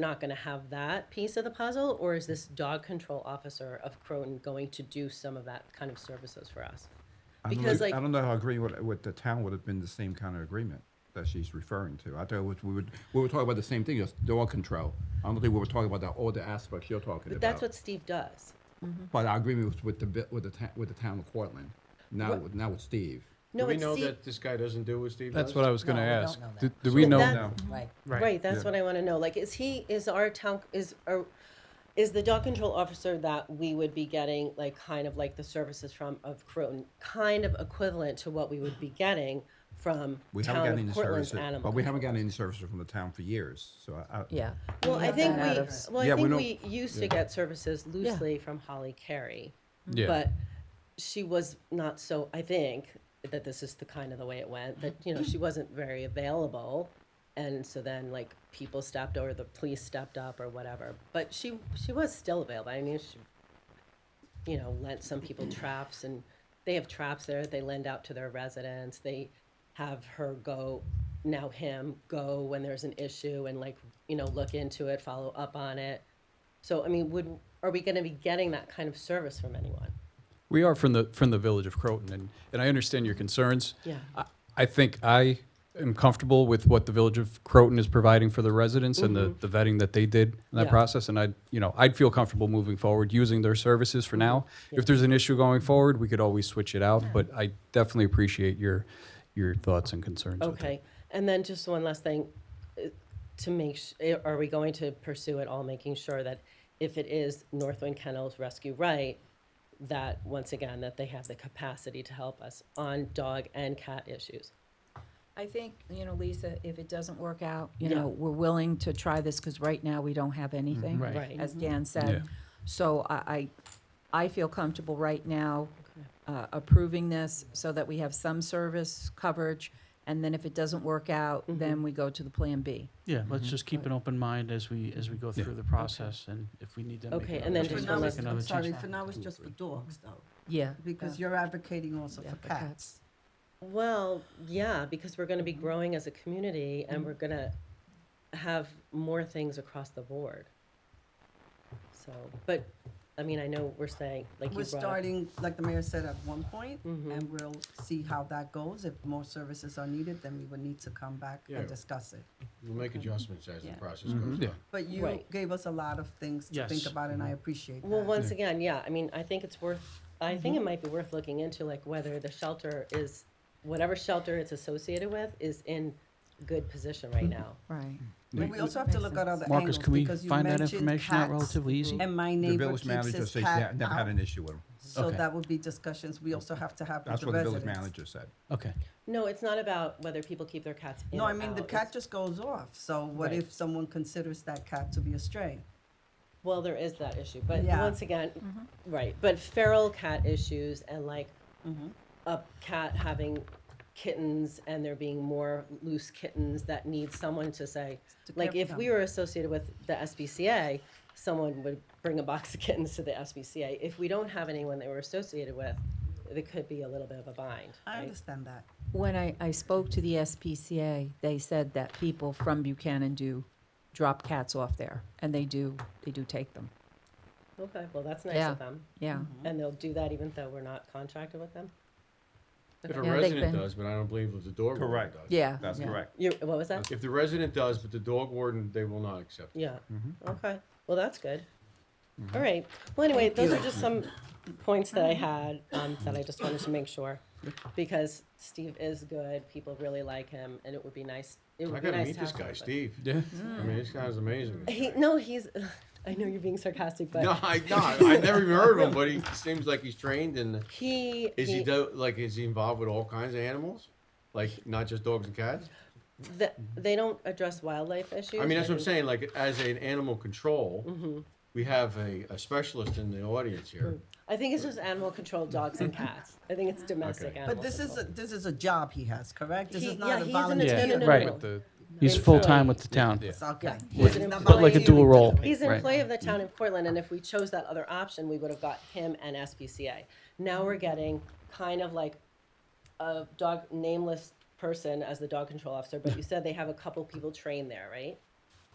we're not gonna have that piece of the puzzle, or is this dog control officer of Croton going to do some of that kind of services for us? I don't Because know, like, I don't know how agreeing with, with the town would have been the same kind of agreement that she's referring to. I thought we would we were talking about the same thing, just dog control. I don't think we were talking about the all the aspects you're talking but about. that's what Steve does. But our agreement was with the vi- with the ta- with the town of Cortland, now with now with Steve. No, Do we it's know Steve- that this guy doesn't do what Steve does? That's what I was going to No, we don't ask. know Do that. do we So know? that- No. Right. Right. that's what I want to know. Like, is he is our town is or is the dog control officer that we would be getting like kind of like the services from of Croton kind of equivalent to what we would be getting from We town haven't gotten of any Portland's services, animal. but we haven't gotten any services from the town for years. So I, I, Yeah. well, I have think that out we of- well, I Yeah, we think we, don't- used to get services loosely from Holly Carey, but she was not so. I think that this is the kind of the way it went. That you know she wasn't very available. and so then like people stepped or the police stepped up or whatever but she she was still available i mean she you know lent some people traps and they have traps there that they lend out to their residents they have her go now him go when there's an issue and like you know look into it follow up on it so i mean would are we going to be getting that kind of service from anyone We are from the, from the village of Croton, and, and I understand your concerns. Yeah. I- I think I am comfortable with what the village of Croton is providing for the residents and the, the vetting that they did in that Mm-hmm. Yeah. process. And I, you know, I'd feel comfortable moving forward, using their services for now. Mm-hmm. If there's an issue going forward, we could always switch it out, but I definitely appreciate your, your thoughts and concerns with it. Okay, and then just one last thing, uh, to make, s- eh, are we going to pursue it all, making sure that if it is Northwind Kennels Rescue Right, that, once again, that they have the capacity to help us on dog and cat issues? I think, you know, Lisa, if it doesn't work out, you Yeah. know, we're willing to try this because right now we don't have anything. Mm-hmm. Right. Right. As Dan said. Yeah. So I, I, I feel comfortable right now uh, approving this so that we have some service coverage. And then if it doesn't work out, then we go to the plan B. Yeah, let's just keep an open mind as we, as we go through the process, and if we need to make Okay, and another then change, just we'll one make last- another I'm change. sorry, for now it's just for dogs though, Yeah. because you're advocating also for cats. Well, yeah, because we're gonna be growing as a community, Mm-hmm. and we're gonna have more things across the board. So, but, I mean, I know we're saying, like you We're brought up- Mm-hmm. starting, like the mayor said, at one point, and we'll see how that goes. If more services are needed, then we would need to come back Yeah. and discuss it. We'll make adjustments as the Yeah. process goes Mm-hmm. Yeah. on. But you Right. gave us a lot of things to think Yes. Mm-hmm. about, and I appreciate Well, that. once again, yeah, I mean, I think it's worth, I Mm-hmm. think it might be worth looking into, like, whether the shelter is, whatever shelter it's associated with is in good position right Mm-hmm. now. Right. But we also have to look at other Marcus, angles, can we because you find that mentioned information out cats, relatively easy? and my the neighbor village keeps manager his says they cat ha- never had out. an issue with him. So Okay. that would be discussions we also have to have with That's the what the village residents. manager said. Okay, No, it's not about whether people keep their cats in No, or I mean, the out. cat just goes off, so what Right. if someone considers that cat to be a stray? Well, there is that issue, but Yeah. once again, right, but feral cat issues and like Mm-hmm. a cat having kittens and there being more loose kittens that need someone to say, To care like for if them. we were associated with the SPCA, someone would bring a box of kittens to the SPCA. If we don't have anyone that we're associated with, there could be a little bit of a bind, I right? understand that. When I, I spoke to the SPCA, they said that people from Buchanan do drop cats off there, and they do, they do take them. Okay, well, that's nice Yeah. of them. Yeah. Mm-hmm. And they'll do that even though we're not contracted with them? If a Yeah, they've resident been- does, but I don't believe if the dog warden Correct. does. Yeah. That's yeah. correct. You, what was that? If the resident does, but the dog warden, they will not accept it. Yeah. Mm-hmm. Okay. Well, that's good. All right. Well, anyway, those are just some points that I had um, that I just wanted to make sure because Steve is good. People really like him, and it would be nice. It would I be gotta nice meet to this have guy, somebody. Steve. Yeah. I mean, this guy's amazing. this He, guy. no, he's. I know you're being sarcastic, but No, I, no, I never even heard of him, but he seems like he's trained and he is he do, like, is he involved with all kinds of animals? Like, not just dogs and cats? th- they don't address wildlife issues. Mm-hmm. I mean, that's what I'm and- saying, like, as an animal control, we have a, a specialist in the audience here. I think it's just animal control, dogs and cats. I think it's domestic Okay. animals. But this is, a- this is a job he has, correct? This He- is yeah, not a he's an volunteer. attorney. Yeah, no, Right. no. with the- he's full-time with the town, It's Okay. Yeah. He's an It's not employee. but like a dual volunteer. role. He's an right. employee of the town of Portland, and if we chose that other option, we would have got him and SPCA. Now we're getting kind of like a dog, nameless person as the dog control officer, but you said they have a couple people trained there, right?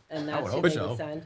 and that's would who hope they so. would send?